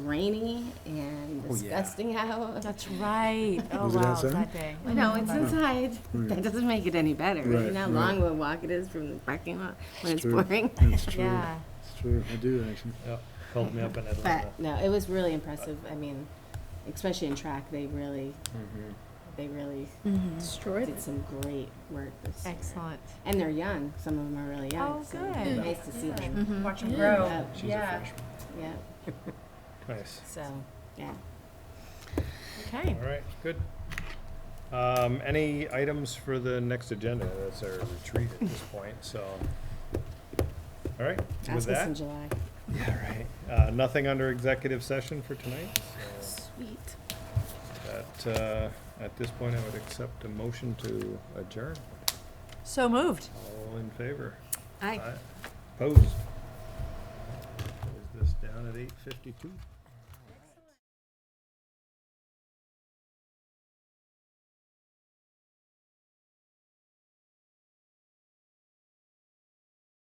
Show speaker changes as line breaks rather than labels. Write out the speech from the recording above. rainy and
Oh, yeah.
disgusting out.
That's right. Oh,
Was it
wow,
outside?
that day.
No, it's inside. That doesn't make it any better. You
Right,
know how
right.
long of a walk it is from the parking lot when it's
It's true.
pouring.
That's true.
Yeah.
It's true. I do actually.
Yeah, called me up in Atlanta.
But no, it was really impressive. I mean, especially in track, they really,
Mm-hmm.
they really
Destroyed.
did some great work this year.
Mm-hmm. Excellent.
And they're young. Some of them are really young.
Oh,
so
good.
Nice to see them.
Watch
them
grow.
She's
Yeah.
a freshman.
Yeah.
Nice.
So,
Yeah.
okay.
All right, good. Um, any items for the next agenda? That's our retreat at this point, so. All right, with
Ask us in
that,
July.
yeah, right. Uh, nothing under executive session for tonight. so
Sweet.
At, uh, at this point, I would accept a motion to adjourn.
So moved.
All in favor?
Aye.
Opposed? Is this down at eight fifty-two?